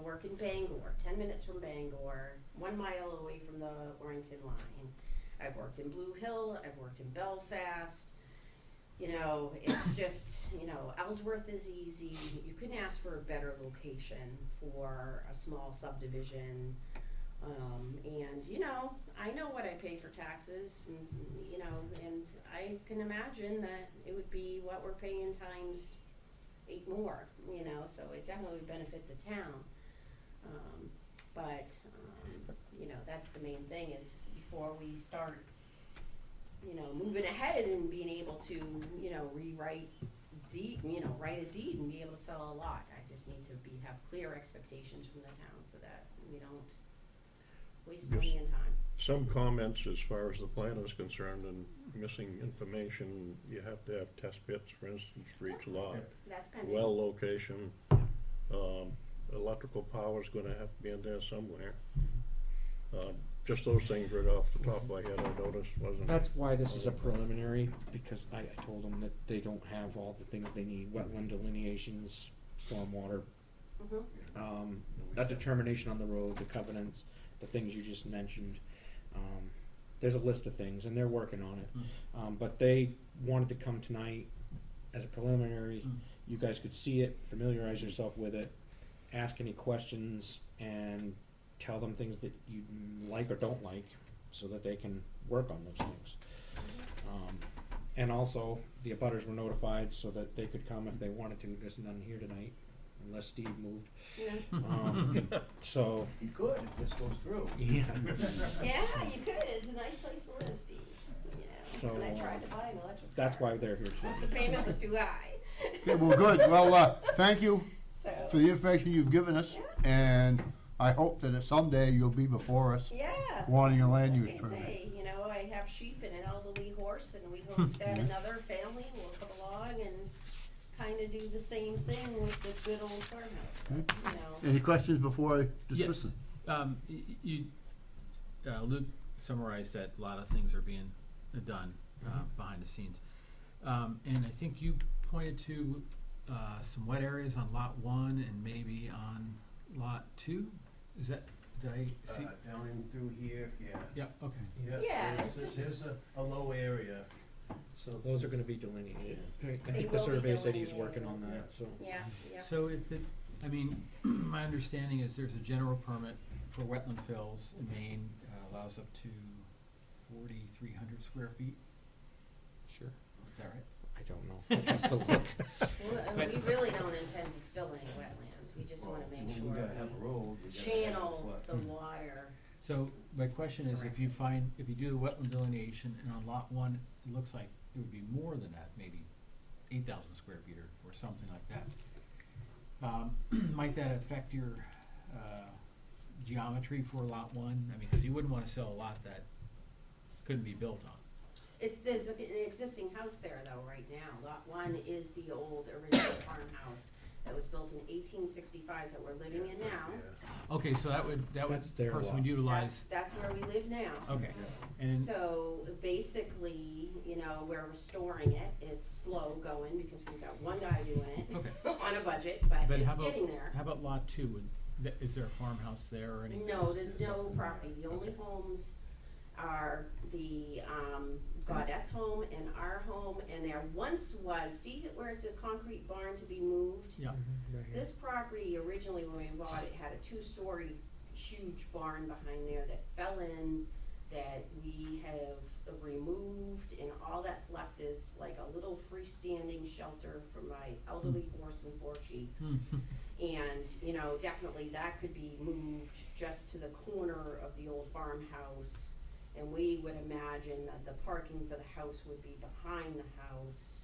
work in Bangor, ten minutes from Bangor, one mile away from the Orrington line. I've worked in Blue Hill, I've worked in Belfast. You know, it's just, you know, Ellsworth is easy. You couldn't ask for a better location for a small subdivision. Um, and, you know, I know what I pay for taxes, and, you know, and I can imagine that it would be what we're paying times eight more, you know, so it definitely would benefit the town. Um, but, um, you know, that's the main thing is before we start, you know, moving ahead and being able to, you know, rewrite deed, you know, write a deed and be able to sell a lot. I just need to be, have clear expectations from the town so that we don't waste Yes. money and time. Some comments as far as the plan is concerned and missing information, you have to have test pits, for instance, for each lot. That's pending. Well location, um, electrical power's gonna have to be in there somewhere. Um, just those things right off the top of my head, I noticed, wasn't. That's why this is a preliminary, because I, I told them that they don't have all the things they need, wetland delineations, stormwater, Mhm. um, a determination on the road, the covenants, the things you just mentioned. Um, there's a list of things, and they're working on it. Um, but they wanted to come tonight as a preliminary. You guys could see it, familiarize yourself with it, ask any questions, and tell them things that you like or don't like, so that they can work on those things. Um, and also, the abutters were notified so that they could come if they wanted to. There's none here tonight, unless Steve moved. Yeah. Um, so, He could if this goes through. yeah. Yeah, you could. It's a nice place to live, Steve, you know, So, and I uh, tried to buy an electric That's car. why they're here The tonight. payment was too high, Okay, well, good. Well, uh, thank you so. for the information you've given us, and I hope that someday you'll be before us Yeah. wanting a land Like use I permit. say, you know, I have sheep and an elderly horse, and we Hmm, hope that another family will come along and kind of do the same thing with the good old farmhouse, Hmm. but, you know. Any questions before I Yes. dismiss it? Um, y- y- you, uh, Luke summarized that a lot of things are being done, Mm-hmm. uh, behind the scenes. Um, and I think you pointed to, uh, some wet areas on lot one and maybe on lot two? Is that, did I Uh, see? down in through here, yeah. Yeah, okay. Yeah, there's- it's There's, just- there's a, a low area. So those are gonna be delineated. Right, I They think the will be survey said he's working delineated. on that, so. Yeah, yeah. So if it, I mean, my understanding is there's a general permit for wetland fills in Maine, uh, allows up to forty-three hundred square feet, Sure. is that right? I don't know. I'd have to look. Mm-hmm. Well, and we really don't intend to fill any wetlands, we just wanna Well, make We sure gotta have a we road. we gotta have a channel flood. the water. So my question is, if you find, if you do the wetland delineation and on lot one, it looks like it would be more than that, maybe eight thousand square feet or, or something like that. Um, might that affect your, uh, geometry for lot one? I mean, cause you wouldn't wanna sell a lot that couldn't be built on. It's, there's a- an existing house there though, right now. Lot one is the old original farmhouse that was built in eighteen sixty-five that we're living in now. Yeah. Okay, so that would, that would That's their person lot. would That's, utilize, that's where we live now. okay, and, So basically, you know, we're restoring it, it's slow going because we've got one guy doing it okay, on a budget, but but how it's about, getting there. how about lot two, would, th- is there a farmhouse there or anything? No, there's no Nothing there. property, the only Okay. homes are the, um, Gaudette's home and our home, and there once was, see where it says concrete barn to be moved? Yeah, Right here. This property originally, when we bought it, had a two-story huge barn behind there that fell in, that we have removed, and all that's left is like a little freestanding shelter for my elderly horse and four sheep. Hmm, And, you know, definitely that could be moved just to the corner of the old farmhouse. And we would imagine that the parking for the house would be behind the house,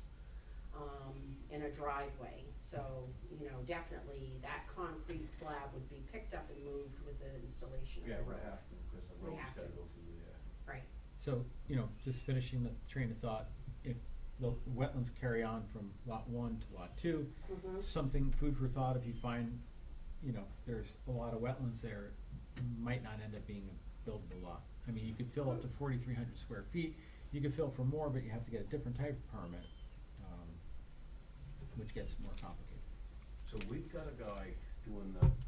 um, in a driveway. So, you know, definitely that concrete slab would be picked up and moved with the installation of Yeah, the we road. have to, because the We road's have gotta to. go through there. Right, So, you know, just finishing the train of thought, if the wetlands carry on from lot one to lot two, hmm something, food for thought, if you find, you know, there's a lot of wetlands there, it might not end up being a buildable lot. I mean, you could fill up to forty-three hundred square feet, you could fill for more, but you have to get a different type of permit, um, which gets more complicated. So we've got a guy doing the